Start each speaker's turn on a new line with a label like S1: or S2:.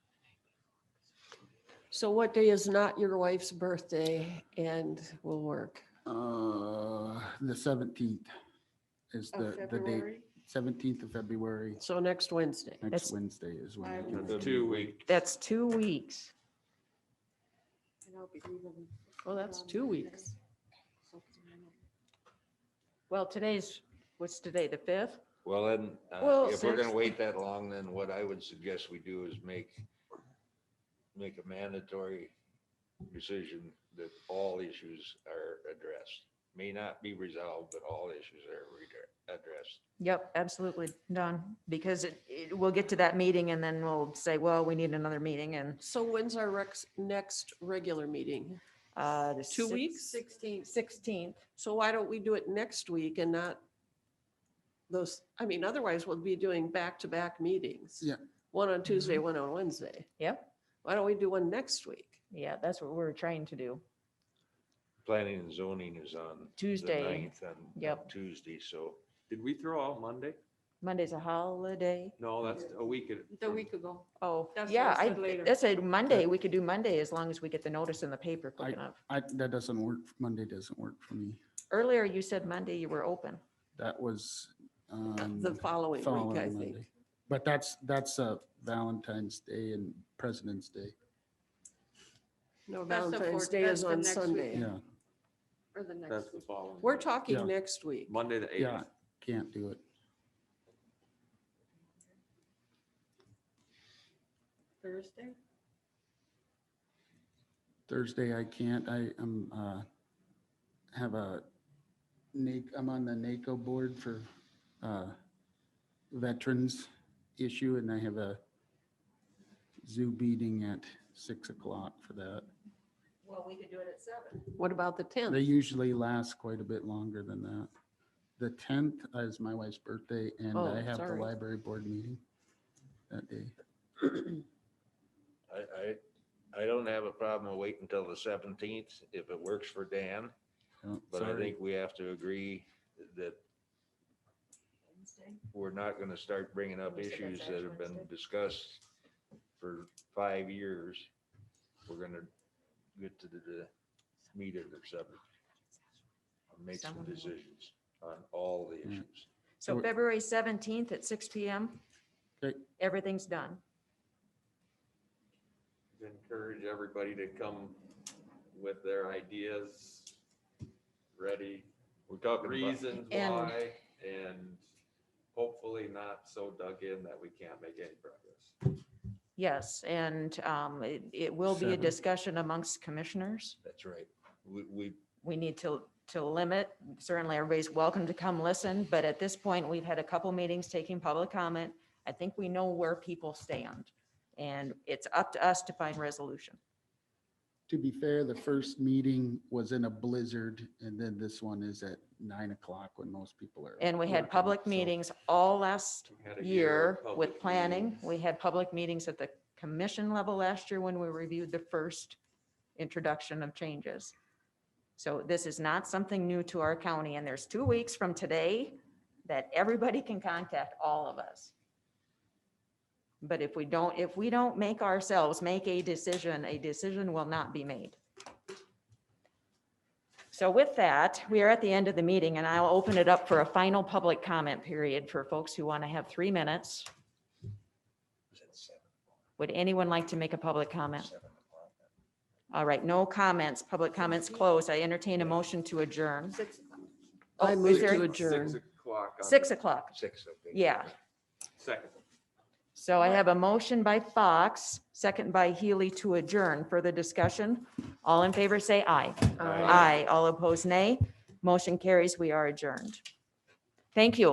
S1: So what day is not your wife's birthday and will work?
S2: Uh, the seventeenth is
S3: of
S2: the, the date,
S3: February.
S2: seventeenth of February,
S1: So next Wednesday.
S2: next
S4: That's-
S2: Wednesday is when. I
S3: I
S2: can
S3: will
S2: make it.
S5: Two week.
S4: That's two weeks.
S3: and I'll be leaving um,
S1: Well, that's
S3: on
S1: two
S3: Monday.
S1: weeks.
S3: So,
S4: Well, today's, what's today, the fifth?
S5: Well, then, uh,
S1: Well,
S5: if we're gonna
S1: since-
S5: wait that long, then what I would suggest we do is make, make a mandatory decision that all issues are addressed. May not be resolved, but all issues are redre- addressed.
S4: Yep, absolutely, done, because it, it, we'll get to that meeting and then we'll say, well, we need another meeting and,
S1: So when's our rex, next regular meeting?
S4: uh. the
S1: Two
S4: six-
S1: weeks?
S3: Sixteen.
S4: Sixteenth,
S1: So why don't we do it next week and not those, I mean, otherwise we'll be doing back-to-back meetings.
S2: Yeah.
S1: One on Tuesday,
S3: Mm-hmm.
S1: one on Wednesday.
S4: yep,
S1: Why don't we do one next week?
S4: yeah, that's what we're trying to do,
S5: Planning and zoning is on the
S4: Tuesday,
S5: ninth on- on
S4: Yep.
S5: Tuesday, so
S6: Did we throw out Monday?
S4: Monday's a holiday.
S6: No, that's a week.
S3: The week ago.
S4: Oh,
S3: That's what
S4: yeah,
S3: I
S4: I,
S3: said later.
S4: that's a Monday, we could do Monday as long as we get the notice in the paper quick
S2: I-
S4: enough.
S2: I, that doesn't work, Monday doesn't work for me.
S4: Earlier, you said Monday you were open.
S2: That was, um,
S1: The following week, I
S2: following
S1: think.
S2: Monday. But that's, that's uh Valentine's Day and President's Day.
S1: No,
S3: That's the
S1: Valentine's
S3: fourth-
S1: Day
S3: that's
S1: is
S3: the
S1: on
S3: next week.
S1: Sunday.
S2: Yeah,
S3: Or the next.
S6: That's the
S3: week.
S6: following.
S1: We're
S6: Monday.
S2: Yeah.
S1: talking next week.
S6: Monday the eighth.
S2: yeah, can't do it.
S3: Thursday?
S2: Thursday I can't, I am, uh, have a, NA I'm on the NACO board for, uh, veterans issue and I have a zoo meeting at six o'clock for that.
S4: Well, we could do it at seven.
S1: What about the
S2: They
S1: 10th?
S2: usually last quite a bit longer than that. The tenth is my wife's birthday and
S1: Oh,
S2: I have the
S1: sorry.
S2: library board meeting that day.
S5: I, I, I don't have a problem waiting until the seventeenth if it works for Dan.
S2: Oh,
S5: But I
S2: sorry.
S5: think we have to agree that we're not gonna start bringing up
S4: You said that's
S5: issues that have been
S4: Wednesday?
S5: discussed for five years. We're gonna get to the- the meat of the subject. and Make some
S4: Someone will-
S5: decisions on all the issues.
S2: So
S4: So
S2: we're-
S4: February seventeenth at six P M.
S2: Okay.
S4: Everything's done.
S6: Encourage everybody to come with their ideas, ready,
S5: We're talking about,
S6: reasons
S4: And-
S6: why, and hopefully not so dug in that we can't make any progress.
S4: Yes, and um, it, it will be a
S2: Seven.
S4: discussion amongst commissioners.
S5: that's right. We, we,
S4: We need to, to limit, certainly everybody's welcome to come listen, but at this point, we've had a couple meetings taking public comment. I think we know where people stand, and it's up to us to find resolution.
S2: To be fair, the first meeting was in a blizzard and then this one is at nine o'clock when most people are.
S4: And we had
S2: working,
S4: public
S2: so-
S4: meetings all last
S6: We had a
S4: year
S6: of
S4: with
S6: public
S4: planning.
S6: meetings.
S4: We had public meetings at the commission level last year when we reviewed the first introduction of changes. So this is not something new to our county, and there's two weeks from today that everybody can contact all of us. But if we don't, if we don't make ourselves make a decision, a decision will not be made. So with that, we are at the end of the meeting and I'll open it up for a final public comment period for folks who want to have three minutes. Would anyone like to make a public comment? All right, no comments. Public comments closed. I entertain a motion to adjourn.
S3: Six.
S4: Oh,
S1: I
S4: is
S1: move
S4: there-
S1: to adjourn.
S6: Six o'clock. on
S4: Six o'clock.
S5: six, I think.
S4: Yeah.
S6: Second.
S4: So I have a motion by Fox, second by Healy to adjourn. Further discussion? All in favor, say aye.
S1: Aye.
S4: Aye. All opposed, nay. Motion carries. We are adjourned. Thank you.